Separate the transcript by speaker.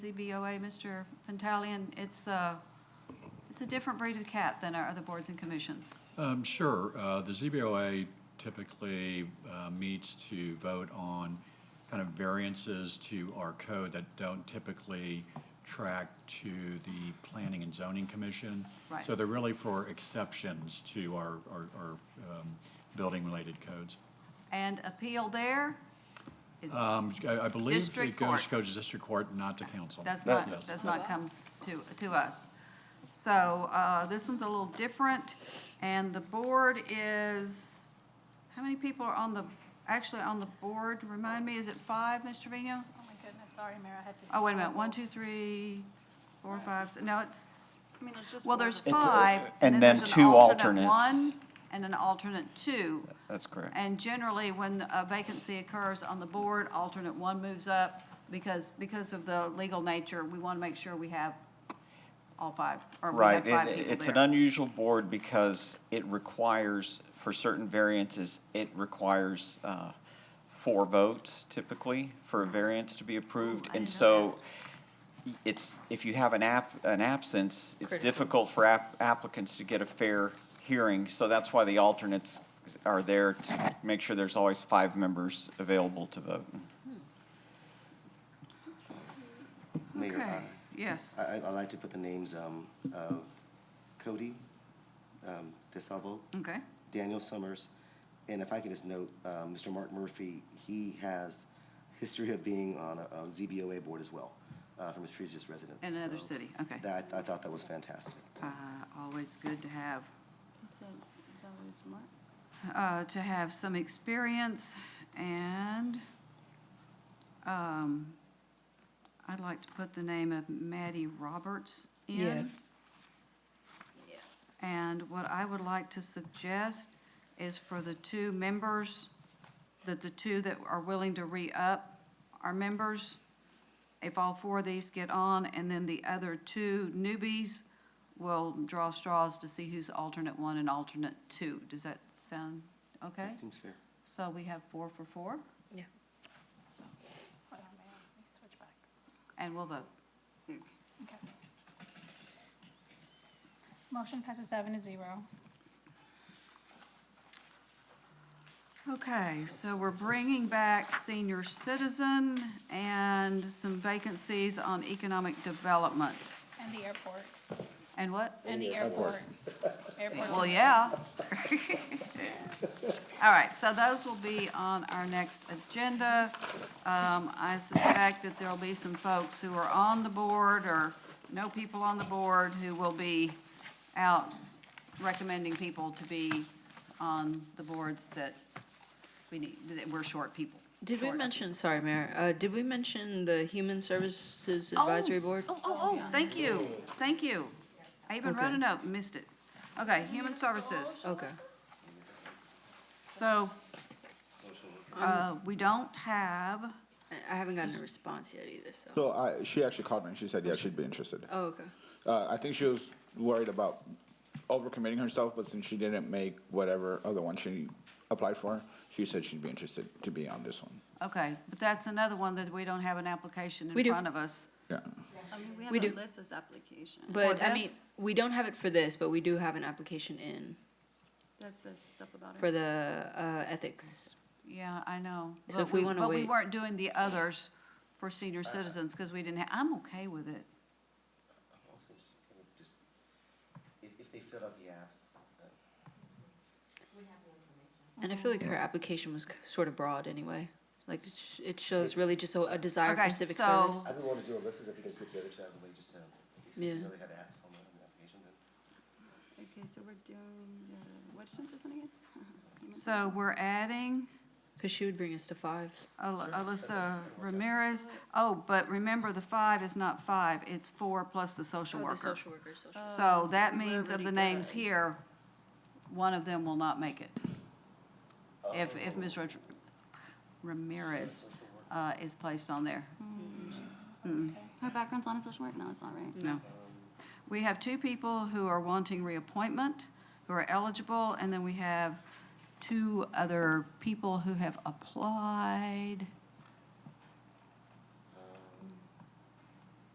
Speaker 1: ZBOA, Mr. Pentalian, it's, uh, it's a different breed of cat than our other boards and commissions.
Speaker 2: Um, Sure. Uh, The ZBOA typically uh, meets to vote on kind of variances to our code that don't typically track to the Planning and Zoning Commission.
Speaker 1: Right.
Speaker 2: So they're really for exceptions to our, our- our um, building-related codes.
Speaker 1: And appeal there is,
Speaker 2: Um, I I believe
Speaker 1: District
Speaker 2: it goes,
Speaker 1: court.
Speaker 2: goes to district court, not to council.
Speaker 1: does
Speaker 3: That-
Speaker 1: not,
Speaker 2: Yes.
Speaker 1: does not come to, to us. So uh, this one's a little different, and the board is, how many people are on the, actually on the board? Remind me, is it five, Mr. Trevino?
Speaker 4: Oh my goodness, sorry, Mayor, I have to.
Speaker 1: Oh, wait a minute, one, two, three, four, five, s- no, it's,
Speaker 4: I mean, there's just.
Speaker 1: well,
Speaker 4: four
Speaker 1: there's
Speaker 4: of us.
Speaker 3: It's, uh,
Speaker 1: five.
Speaker 3: and then
Speaker 1: there's an
Speaker 3: two
Speaker 1: alternate
Speaker 3: alternates.
Speaker 1: one And an alternate two.
Speaker 3: That's correct.
Speaker 1: And generally, when a vacancy occurs on the board, alternate one moves up because, because of the legal nature, we want to make sure we have all five, or we have
Speaker 3: Right,
Speaker 1: five
Speaker 3: it-
Speaker 1: people
Speaker 3: it's an
Speaker 1: there.
Speaker 3: unusual board because it requires, for certain variances, it requires uh, four votes typically for a variance to be approved.
Speaker 1: I
Speaker 3: And
Speaker 1: didn't know
Speaker 3: so it's, if you have an app, an absence, it's difficult for app- applicants to get a fair hearing. So that's why the alternates are there to make sure there's always five members available to vote.
Speaker 5: Mayor,
Speaker 1: Okay,
Speaker 5: uh,
Speaker 1: Yes,
Speaker 5: I, I- I'd like to put the names um, of Cody um, DeSalvo,
Speaker 1: okay,
Speaker 5: Daniel Summers, and if I could just note, uh, Mr. Mark Murphy, he has history of being on a a ZBOA board as well, uh, from his previous residence.
Speaker 1: in another
Speaker 5: So
Speaker 1: city, okay.
Speaker 5: That, I thought that was fantastic.
Speaker 1: Uh, Always good to have,
Speaker 4: It's a- it's always Mark.
Speaker 6: Oh,
Speaker 1: uh, to have some experience, and um, I'd like to put the name of Maddie Roberts in.
Speaker 7: Yeah.
Speaker 1: And what I would like to suggest is for the two members, that the two that are willing to re-up are members, if all four of these get on, and then the other two newbies will draw straws to see who's alternate one and alternate two. Does that sound okay?
Speaker 5: That seems fair.
Speaker 1: So we have four for four,
Speaker 4: Hold on, Mayor, let me switch back.
Speaker 1: and we'll vote.
Speaker 4: Okay. Motion passes seven to zero.
Speaker 1: Okay, so we're bringing back senior citizen and some vacancies on economic development.
Speaker 4: And the airport.
Speaker 1: And what?
Speaker 4: And the airport. Airport.
Speaker 1: Well, yeah. All right, so those will be on our next agenda. Um, I suspect that there'll be some folks who are on the board or know people on the board who will be out recommending people to be on the boards that we need, that we're short people.
Speaker 7: Did we
Speaker 1: short of.
Speaker 7: mention, sorry, Mayor, uh, did we mention the Human Services Advisory Board?
Speaker 1: Oh, oh, oh, thank you, thank you. I even wrote
Speaker 7: Okay.
Speaker 1: a note, missed it. Okay, human services.
Speaker 7: Okay.
Speaker 1: So, uh, we don't have,
Speaker 7: I I haven't gotten a response yet either, so.
Speaker 8: So I, she actually called me and she said, yeah, she'd be interested.
Speaker 7: Oh, okay.
Speaker 8: Uh, I think she was worried about overcommitting herself, but since she didn't make whatever other one she applied for, she said she'd be interested to be on this one.
Speaker 1: okay, but that's another one that we don't have an application
Speaker 7: We
Speaker 1: in
Speaker 7: do.
Speaker 1: front of us.
Speaker 8: Yeah.
Speaker 6: I mean, we
Speaker 7: We
Speaker 6: have
Speaker 7: do.
Speaker 6: a Alyssa's application.
Speaker 7: But, I mean,
Speaker 1: this?
Speaker 7: we don't have it for this, but we do have an application in
Speaker 6: That says stuff about
Speaker 7: for
Speaker 6: it.
Speaker 7: the uh, ethics.
Speaker 1: Yeah, I know.
Speaker 7: So
Speaker 1: But
Speaker 7: if we wanna
Speaker 1: But we
Speaker 7: wait-
Speaker 1: weren't doing the others for senior citizens, because we didn't have, I'm okay with it.
Speaker 5: I'm also just kind of just, if, if they filled out the apps, uh,
Speaker 7: And I feel
Speaker 1: Oh.
Speaker 7: like her application was sort of broad anyway. Like, it sh- it shows really just a a desire
Speaker 1: Okay,
Speaker 7: for civic
Speaker 1: so-
Speaker 7: service.
Speaker 5: I would want to do a list as if you can just get the other two out of the um, way, just to, since we
Speaker 7: Yeah.
Speaker 5: really had apps on the on the application, then.
Speaker 6: Okay, so we're doing, uh, what's this one again? Human
Speaker 1: So we're adding
Speaker 7: Because she would bring us to five.
Speaker 1: Al- Alyssa Ramirez. Oh, but remember, the five is not five, it's four plus the social
Speaker 7: Oh, the
Speaker 1: worker. Uh,
Speaker 7: social worker, social.
Speaker 1: So
Speaker 6: Oh, so
Speaker 1: that
Speaker 6: we were
Speaker 1: means of
Speaker 6: already
Speaker 1: the names
Speaker 6: done.
Speaker 1: here, one of them will not make it. If, if Ms. Rod- Ramirez uh, is placed on there.
Speaker 6: Her background's on a social work? No, it's not right.
Speaker 1: No. We have two people who are wanting reappointment, who are eligible, and then we have two other people who have applied.